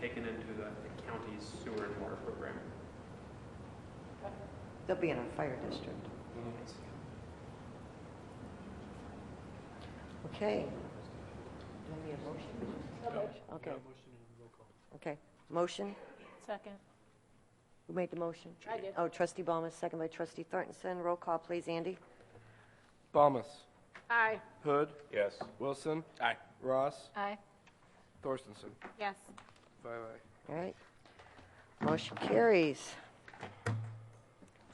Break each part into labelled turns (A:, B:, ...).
A: taken into the the county's sewer and water program.
B: They'll be in a fire district. Okay. Do you need a motion? Okay, okay. Motion?
C: Second.
B: Who made the motion?
C: I did.
B: Oh, trustee Ballmer, second by trustee Thorntonson. Roll call, please, Andy.
D: Thomas.
C: Aye.
D: Hood.
E: Yes.
D: Wilson.
E: Aye.
D: Ross.
C: Aye.
D: Thorstenson.
C: Yes.
D: Five aye.
B: All right. Motion carries. It's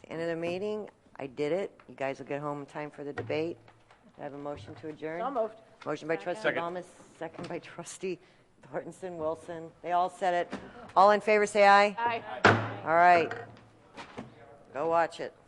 B: the End of the meeting. I did it. You guys will get home in time for the debate. Do I have a motion to adjourn?
C: So moved.
B: Motion by
C: Second.
B: trustee Balmas, second by trustee Thorntonson, Wilson. They all said it. All in favor, say aye.
C: Aye.
B: All right. Go watch it.